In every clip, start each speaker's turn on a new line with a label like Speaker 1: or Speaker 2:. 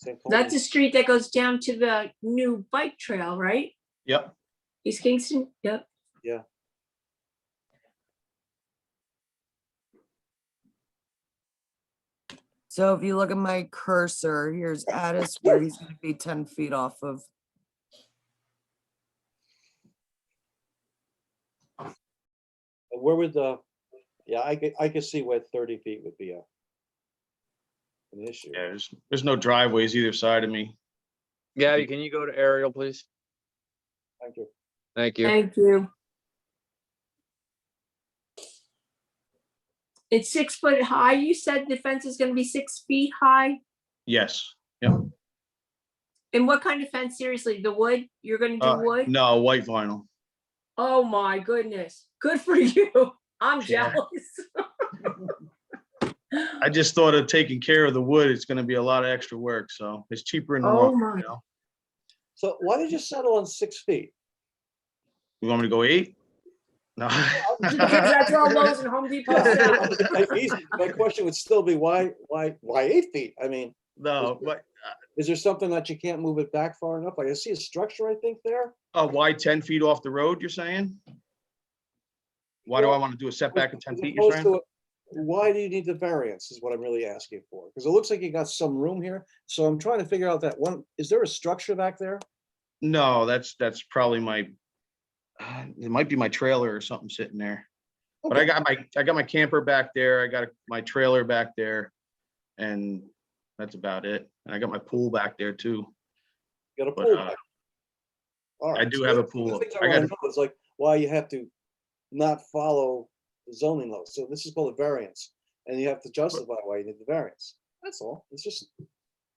Speaker 1: St. Paul.
Speaker 2: That's the street that goes down to the new bike trail, right?
Speaker 3: Yep.
Speaker 2: East Kingston, yep.
Speaker 1: Yeah.
Speaker 4: So if you look at my cursor, here's Addis where he's gonna be ten feet off of.
Speaker 1: And Where would the, yeah, I could, I could see where thirty feet would be a an issue.
Speaker 3: Yeah, there's, there's no driveways either side of me.
Speaker 5: Gabby, can you go to aerial, please?
Speaker 1: Thank you.
Speaker 5: Thank you.
Speaker 2: Thank you. It's six foot high. You said the fence is gonna be six feet high?
Speaker 3: Yes.
Speaker 2: And what kind of fence? Seriously, the wood? You're gonna
Speaker 3: Uh,
Speaker 2: do wood?
Speaker 3: No, white vinyl.
Speaker 2: Oh my goodness. Good for you. I'm
Speaker 3: Yeah.
Speaker 2: jealous.
Speaker 3: I just thought of taking care of the wood. It's gonna be a lot of extra work, so it's cheaper in the
Speaker 2: Oh
Speaker 3: long. run,
Speaker 2: my.
Speaker 3: you know.
Speaker 1: So why did you settle on six feet?
Speaker 3: You want me to go eight? No.
Speaker 2: Because That's all Lowe's and Home Depot sell.
Speaker 1: I- easy- My question would still be why, why, why eight feet? I mean,
Speaker 3: No, but,
Speaker 1: is there something that you can't move it back far enough? Like I see a structure, I think there.
Speaker 3: uh, why ten feet off the road, you're saying? Why do I
Speaker 1: Well,
Speaker 3: want to do a setback of ten
Speaker 1: As
Speaker 3: feet, you're
Speaker 1: opposed
Speaker 3: saying?
Speaker 1: to a- Why do you need the variance is what I'm really asking for? Because it looks like you got some room here. So I'm trying to figure out that one, is there a structure back there?
Speaker 3: No, that's, that's probably my, uh, it might be my trailer or something sitting there. But I
Speaker 1: Okay.
Speaker 3: got my, I got my camper back there. I got my trailer back there. And that's about it. And I got my pool back there too.
Speaker 1: Got a
Speaker 3: but,
Speaker 1: pool
Speaker 3: uh,
Speaker 1: back. All right,
Speaker 3: do
Speaker 1: so
Speaker 3: have a
Speaker 1: that's the
Speaker 3: pool.
Speaker 1: things
Speaker 3: I
Speaker 1: I
Speaker 3: got
Speaker 1: want to know is like, why you have to not follow the zoning laws. So this is called a variance. And you have to justify why you need the variance. That's all. It's just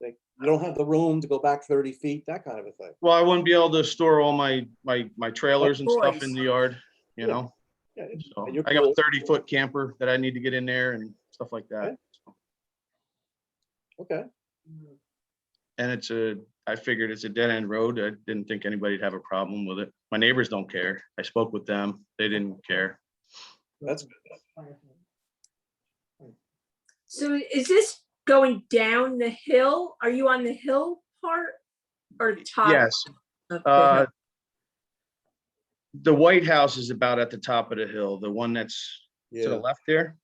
Speaker 1: like, you don't have the room to go back thirty feet, that kind of a thing.
Speaker 3: Well, I wouldn't be able to store all my, my, my trailers and stuff in
Speaker 2: course.
Speaker 3: the yard, you know?
Speaker 1: Yeah, it-
Speaker 3: So
Speaker 1: And your
Speaker 3: I got a
Speaker 1: pool-
Speaker 3: thirty foot camper that I need to get in there and stuff like that.
Speaker 1: okay.
Speaker 3: And it's a, I figured it's a dead end road. I didn't think anybody'd have a problem with it. My neighbors don't care. I spoke with them. They didn't care.
Speaker 1: That's good.
Speaker 2: So is this going down the hill? Are you on the hill part or top?
Speaker 3: Yes,
Speaker 2: of the
Speaker 3: uh,
Speaker 2: hill?
Speaker 3: the White House is about at the top of the hill, the one that's to the
Speaker 1: Yeah,
Speaker 3: left there.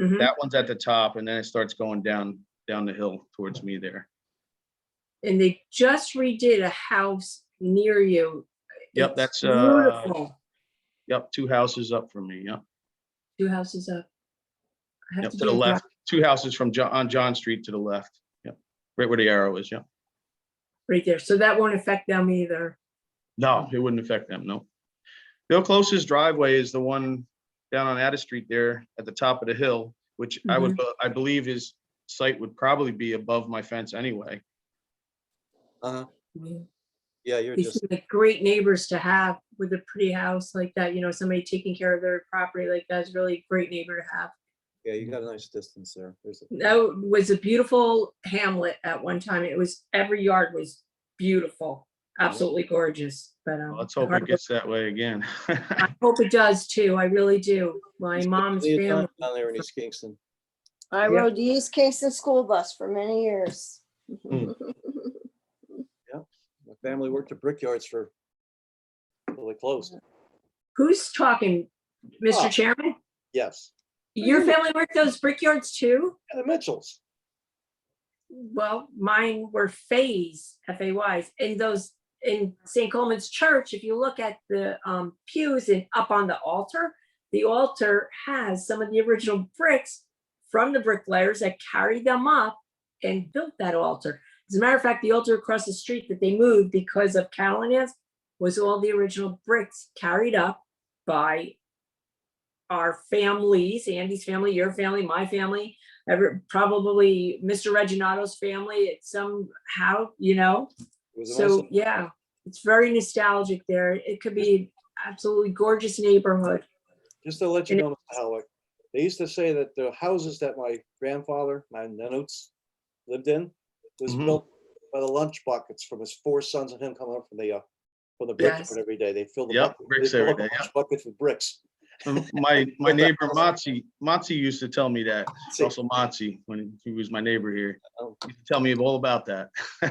Speaker 2: Mhm.
Speaker 3: That one's at the top and then it starts going down, down the hill towards me there.
Speaker 2: And they just redid a house near you.
Speaker 3: Yep,
Speaker 2: It's
Speaker 3: that's, uh,
Speaker 2: Beautiful.
Speaker 3: Yep, two houses up from me, yep.
Speaker 2: Two houses up. I have
Speaker 3: Yep, to
Speaker 2: do
Speaker 3: the
Speaker 2: a dri-
Speaker 3: left, two houses from John, on John Street to the left, yep, right where the arrow is, yep.
Speaker 2: Right there. So that won't affect them either.
Speaker 3: No, it wouldn't affect them, no. Their closest driveway is the one down on Addis Street there at the top of the hill, which I would, be- I believe his site would probably be above my fence anyway.
Speaker 1: uh-huh.
Speaker 2: Yeah.
Speaker 1: Yeah, you're
Speaker 2: They
Speaker 1: just.
Speaker 2: seem like great neighbors to have with a pretty house like that, you know, somebody taking care of their property like that is really a great neighbor to have.
Speaker 1: Yeah, you got a nice distance there. There's a-
Speaker 2: That was a beautiful hamlet at one time. It was, every yard was beautiful, absolutely gorgeous, but. um,
Speaker 3: Well, Let's hope
Speaker 2: hard
Speaker 3: it
Speaker 2: work-
Speaker 3: gets that way again.
Speaker 2: I hope it does too. I really do. My
Speaker 1: He's spent
Speaker 2: mom's
Speaker 1: plenty of time
Speaker 2: family.
Speaker 1: Down there in East Kingston.
Speaker 6: I
Speaker 2: Yeah.
Speaker 6: rode the East Kingston school bus for many years.
Speaker 3: Mm.
Speaker 1: My family worked at Brickyards for, until they closed.
Speaker 2: Who's talking,
Speaker 1: Oh.
Speaker 2: Mr. Chairman?
Speaker 1: Yes.
Speaker 2: Your family worked those brickyards too?
Speaker 1: And the Mitchells.
Speaker 2: Well, mine were Fays, F-A-Ys, and those in St. Coleman's Church, if you look at the um pews and up on the altar, the altar has some of the original bricks from the bricklayers that carried them up and built that altar. As a matter of fact, the altar across the street that they moved because of Catalania's was all the original bricks carried up by our families, Andy's family, your family, my family, ever, probably Mr. Reginato's family, it's somehow, you know?
Speaker 1: It was a nice
Speaker 2: So,
Speaker 1: little-
Speaker 2: yeah, it's very nostalgic there. It could be absolutely gorgeous neighborhood.
Speaker 1: Just to let you
Speaker 2: and
Speaker 1: know, Mr. Howick, they used to say that the houses that my grandfather, my nanoots, lived in was
Speaker 3: Mhm.
Speaker 1: built by the lunch buckets from his four sons and him coming up from the, uh, from the
Speaker 2: Yes.
Speaker 1: brickyard every day. They filled the
Speaker 3: Yep,
Speaker 1: bucket- they
Speaker 3: bricks
Speaker 1: filled
Speaker 3: every
Speaker 1: up the
Speaker 3: day,
Speaker 1: lunch Buckets with bricks.
Speaker 3: My, my neighbor Matzi, Matzi used to tell me that, Russell Matzi, when he was my neighbor here.
Speaker 1: Oh.
Speaker 3: He used to Tell me all about that.